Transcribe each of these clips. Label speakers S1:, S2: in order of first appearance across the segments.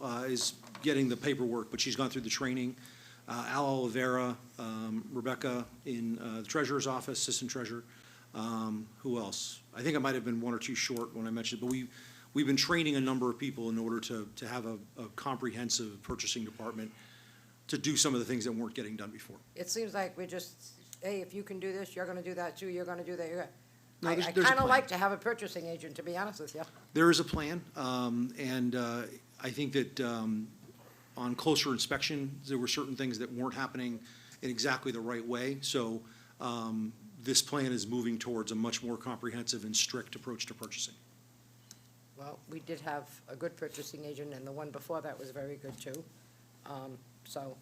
S1: uh, is getting the paperwork, but she's gone through the training. Uh, Al Oliveira, um, Rebecca in uh, the treasurer's office, assistant treasurer. Um, Who else? I think I might have been one or two short when I mentioned, but we, we've been training a number of people in order to, to have a a comprehensive purchasing department to do some of the things that weren't getting done before.
S2: It seems like we just, hey, if you can do this, you're gonna do that too, you're gonna do that, you're gonna.
S1: No,
S2: I,
S1: there's-
S2: I
S1: there's a
S2: kinda
S1: plan.
S2: like to have a purchasing agent, to be honest with you.
S1: There is a plan, um, and uh, I think that um, on closer inspection, there were certain things that weren't happening in exactly the right way. So um, this plan is moving towards a much more comprehensive and strict approach to purchasing.
S2: Well, we did have a good purchasing agent, and the one before that was very good too. Um, so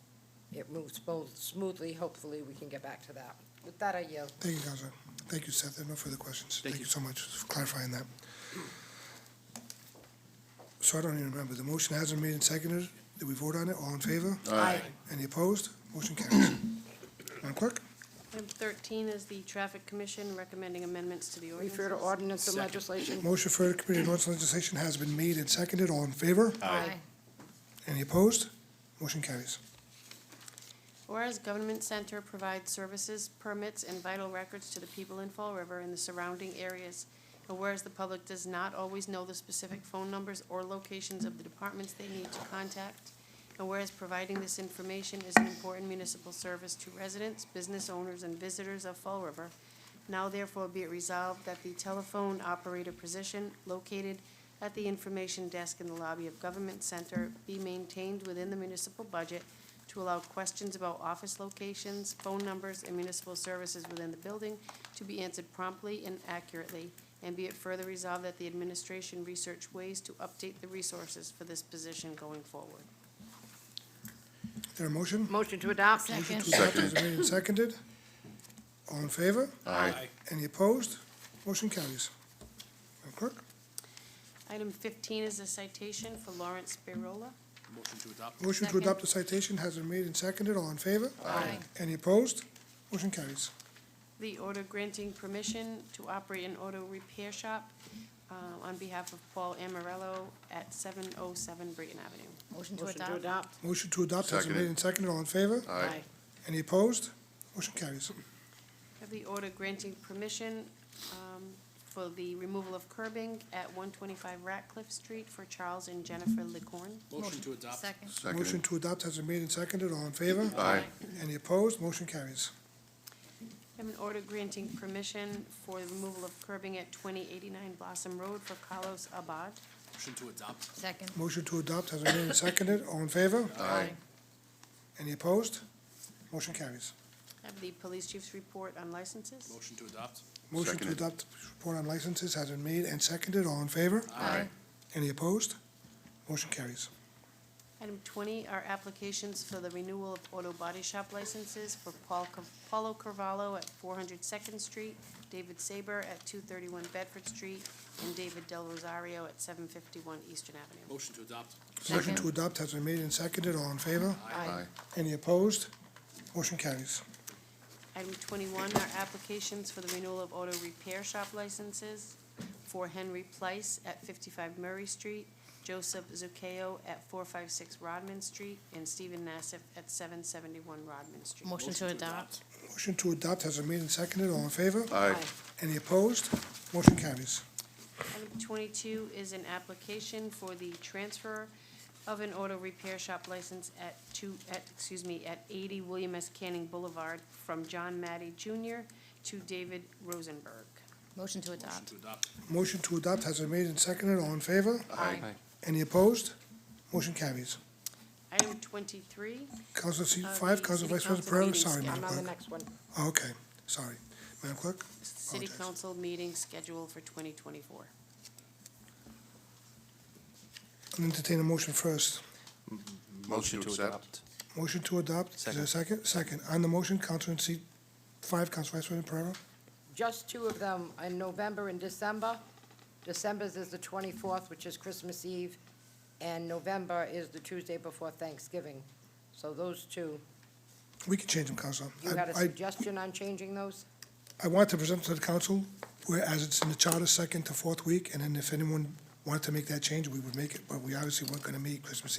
S2: it moves both smoothly, hopefully we can get back to that. With that, I yield.
S3: Thank you, Counselor. Thank you, Seth. There are No further questions.
S1: Thank
S3: Thank
S1: you.
S3: you so much for clarifying that. So I don't even remember. The motion has been made and seconded. Did we vote on it? All in favor?
S2: Aye.
S3: Any opposed? Motion carries. Madam Clerk?
S4: Item 13 is the Traffic Commission recommending amendments to the ordinances.
S2: Refer to ordinance and legislation.
S3: Motion for the Committee on Ordinance and Legislation has been made and seconded. All in favor?
S2: Aye.
S3: Any opposed? Motion carries.
S4: Whereas Government Center provides services, permits, and vital records to the people in Fall River and the surrounding areas, and whereas the public does not always know the specific phone numbers or locations of the departments they need to contact, and whereas providing this information is an important municipal service to residents, business owners, and visitors of Fall River, now therefore be it resolved that the telephone operator position located at the information desk in the lobby of Government Center be maintained within the municipal budget to allow questions about office locations, phone numbers, and municipal services within the building to be answered promptly and accurately, and be it further resolved that the administration research ways to update the resources for this position going forward.
S3: Is there a motion?
S2: Motion to adopt.
S3: Motion to adopt has been made and seconded. All in favor?
S5: Aye.
S3: Any opposed? Motion carries. Madam Clerk?
S4: Item fifteen is a citation for Lawrence Spirola.
S5: Motion to adopt.
S3: Motion to
S4: Second.
S3: adopt the citation has been made and seconded. All in favor?
S4: Aye.
S3: Any opposed? Motion carries.
S4: the order granting permission to operate an auto repair shop uh, on behalf of Paul Amarello at 707 Brayton Avenue.
S2: Motion to adopt.
S3: Motion to adopt has been made and seconded. All in favor?
S5: Aye.
S3: Any opposed? Motion carries.
S4: Have the order granting permission um, for the removal of curbing at 125 Ratcliffe Street for Charles and Jennifer Licorn.
S5: Motion to adopt.
S6: Second.
S3: Motion to adopt has been made and seconded. All in favor?
S5: Aye.
S3: Any opposed? Motion carries.
S4: Have an order granting permission for the removal of curbing at 2089 Blossom Road for Carlos Abad.
S5: Motion to adopt.
S6: Second.
S3: Motion to adopt has been made and seconded. All in favor?
S6: Aye.
S3: Any opposed? Motion carries.
S4: Have the police chief's report on licenses.
S5: Motion to adopt.
S3: Motion to
S7: Seconded.
S3: adopt report on licenses has been made and seconded. All in favor?
S6: Aye.
S3: Any opposed? Motion carries.
S4: Item twenty are applications for the renewal of auto body shop licenses for Paul, Ca- Paulo Carvalho at four hundred Second Street, David Saber at two thirty-one Bedford Street, and David Del Rosario at seven fifty-one Eastern Avenue.
S5: Motion to adopt.
S3: Motion
S6: Second.
S3: to adopt has been made and seconded. All in favor?
S7: Aye.
S3: Any opposed? Motion carries.
S4: Item twenty-one are applications for the renewal of auto repair shop licenses for Henry Place at fifty-five Murray Street, Joseph Zuccheo at four five six Rodman Street, and Stephen Nassif at seven seventy-one Rodman Street.
S6: Motion to adopt.
S3: Motion to adopt has been made and seconded. All in favor?
S7: Aye.
S3: Any opposed? Motion carries.
S4: Item twenty-two is an application for the transfer of an auto repair shop license at two, at, excuse me, at eighty William S. Canning Boulevard from John Matty Junior to David Rosenberg.
S6: Motion to
S5: Motion
S6: adopt.
S5: to adopt.
S3: Motion to adopt has been made and seconded. All in favor?
S7: Aye.
S3: Any opposed? Motion carries.
S4: Item twenty-three,
S3: Council seat
S4: Uh,
S3: five,
S4: the
S3: Council
S4: city
S3: Vice President
S4: council
S3: Pereira,
S4: meeting
S3: sorry,
S2: Yeah,
S3: Madam
S2: I'm on the
S3: Clerk.
S2: next one.
S3: Oh, Okay, sorry. Madam Clerk?
S4: city
S3: Apologize.
S4: council meeting scheduled for twenty twenty-four.
S3: I'll entertain a motion first.
S7: Motion to accept.
S3: Motion to adopt. Is there a second? Second. On the motion, Council in seat five, Council Vice President Pereira?
S2: Just two of them, in November and December. December's is the twenty-fourth, which is Christmas Eve, and November is the Tuesday before Thanksgiving. So those two,
S3: We can change them, Council.
S2: you
S3: I-
S2: had a
S3: I-
S2: suggestion on changing those?
S3: I want to present to the council, whereas it's in the charter, second to fourth week, and then if anyone wanted to make that change, we would make it, but we obviously weren't gonna meet Christmas Eve.